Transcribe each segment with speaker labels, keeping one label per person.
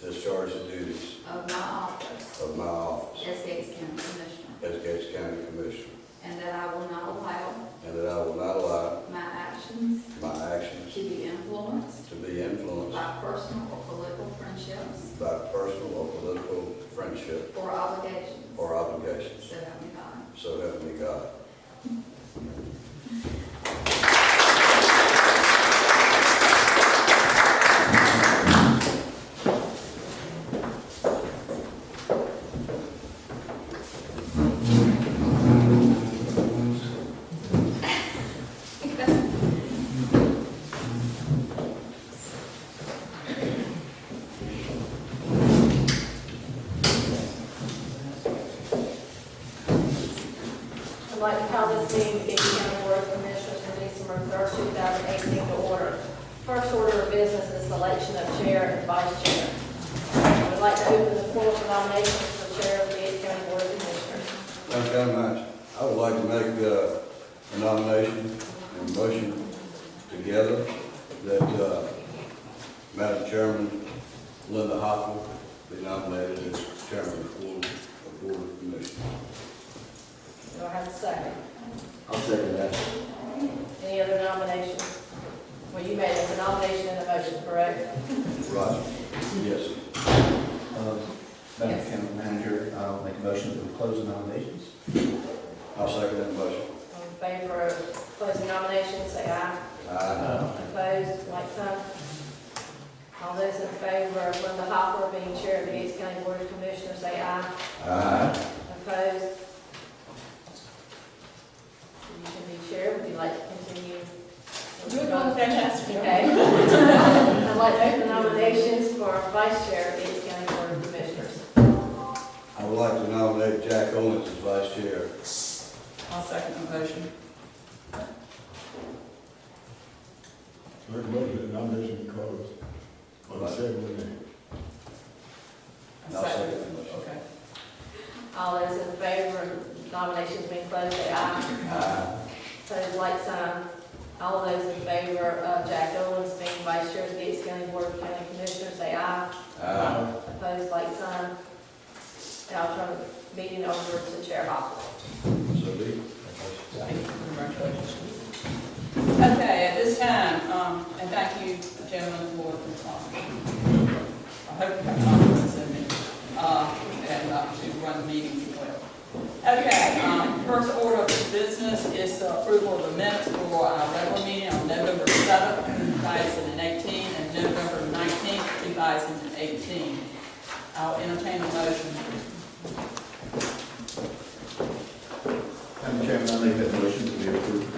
Speaker 1: discharge the duties
Speaker 2: of my office
Speaker 1: of my office
Speaker 2: as Gates County Commissioner,
Speaker 1: as Gates County Commissioner,
Speaker 2: and that I will not allow
Speaker 1: and that I will not allow
Speaker 2: my actions
Speaker 1: my actions
Speaker 2: to be influenced
Speaker 1: to be influenced
Speaker 2: by personal or political friendships
Speaker 1: by personal or political friendship
Speaker 2: or obligations.
Speaker 1: or obligation.
Speaker 2: So help me God.
Speaker 1: So help me God.
Speaker 3: I'd like to call this meeting, the Aiken County Board of Commissioners for December 3rd, 2018, to order. First order of business is selection of chair and vice chair. I would like to open the floor for nominations for chair of the Aiken County Board of Commissioners.
Speaker 1: Thank you very much. I would like to make uh, a nomination and motion together that uh, Madam Chairman Linda Hopple be nominated as Chairman of the Board of Board of Commissioners.
Speaker 3: Do I have a second?
Speaker 4: I'll second that.
Speaker 3: Any other nominations? Well, you made a nomination and a motion, correct?
Speaker 1: Roger? Yes.
Speaker 4: Um, Madam County Manager, I'll make a motion to close the nominations.
Speaker 1: I'll second that motion.
Speaker 3: All in favor of closing nominations, say aye.
Speaker 1: Aye.
Speaker 3: Opposed, like sign. All those in favor of Linda Hopper being chair of the Gates County Board of Commissioners, say aye.
Speaker 1: Aye.
Speaker 3: Opposed? You can be chair, would you like to continue?
Speaker 5: You're doing fantastic.
Speaker 3: Okay. I'd like to open nominations for vice chair of Gates County Board of Commissioners.
Speaker 1: I would like to nominate Jack Owens as Vice Chair.
Speaker 5: I'll second the motion.
Speaker 6: Make a motion that nomination be closed. On the second day.
Speaker 5: A
Speaker 1: I'll second the motion.
Speaker 5: Okay.
Speaker 3: All those in favor of nominations being closed, say aye.
Speaker 1: Aye.
Speaker 3: Opposed, like sign. All those in favor of Jack Owens being vice chair of the Gates County Board of County Commissioners, say aye.
Speaker 1: Aye.
Speaker 3: Opposed, like sign. And I'll turn the meeting over to Chair Hopper.
Speaker 1: So be it.
Speaker 5: Congratulations. Okay, at this time, um, and thank you, gentlemen, for, um, I hope you have confidence in me, uh, and uh, to run the meetings well. Okay, um, first order of business is the approval of the minutes for our regular meeting on November seventh, two thousand and eighteen, and November nineteenth, two thousand and eighteen. I'll entertain a motion.
Speaker 4: Madam Chairman, I'll make that motion to be approved.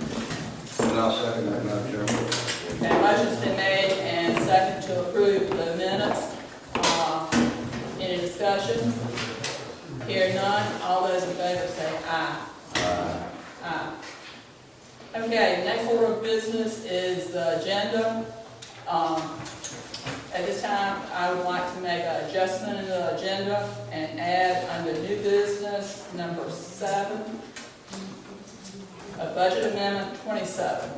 Speaker 1: And I'll second that, Madam Chairman.
Speaker 5: Okay, motion's been made and second to approve the minutes. Uh, Any discussion? Hearing none, all those in favor say aye. Aye. Okay, next order of business is the agenda. Um, At this time, I would like to make an adjustment in the agenda and add under new business number seven, a budget amendment twenty-seven.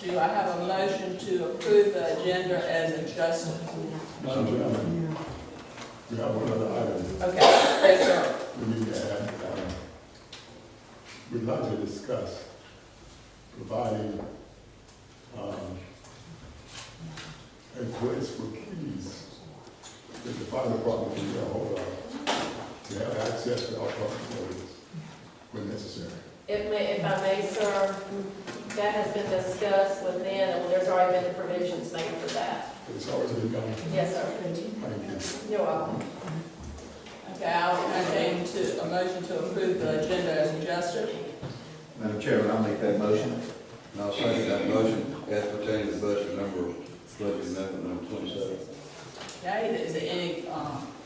Speaker 5: Do I have a motion to approve the agenda as adjusted?
Speaker 6: Madam Chairman, we have one other item
Speaker 5: Okay, yes, sir.
Speaker 6: we need to add. uh, We'd like to discuss providing um, a place for keys that the fire department can get hold of to have access to our public buildings when necessary.
Speaker 3: If may, if I may, sir, that has been discussed with them, and there's already been the provisions made for that.
Speaker 6: It's always been done.
Speaker 3: Yes, sir.
Speaker 6: Thank you.
Speaker 3: You're welcome.
Speaker 5: Okay, I'll entertain to, a motion to approve the agenda as adjusted.
Speaker 4: Madam Chairman, I'll make that motion.
Speaker 1: And I'll second that motion as pertaining to budget number, budget amendment number twenty-seven.
Speaker 5: Okay, is there any, um,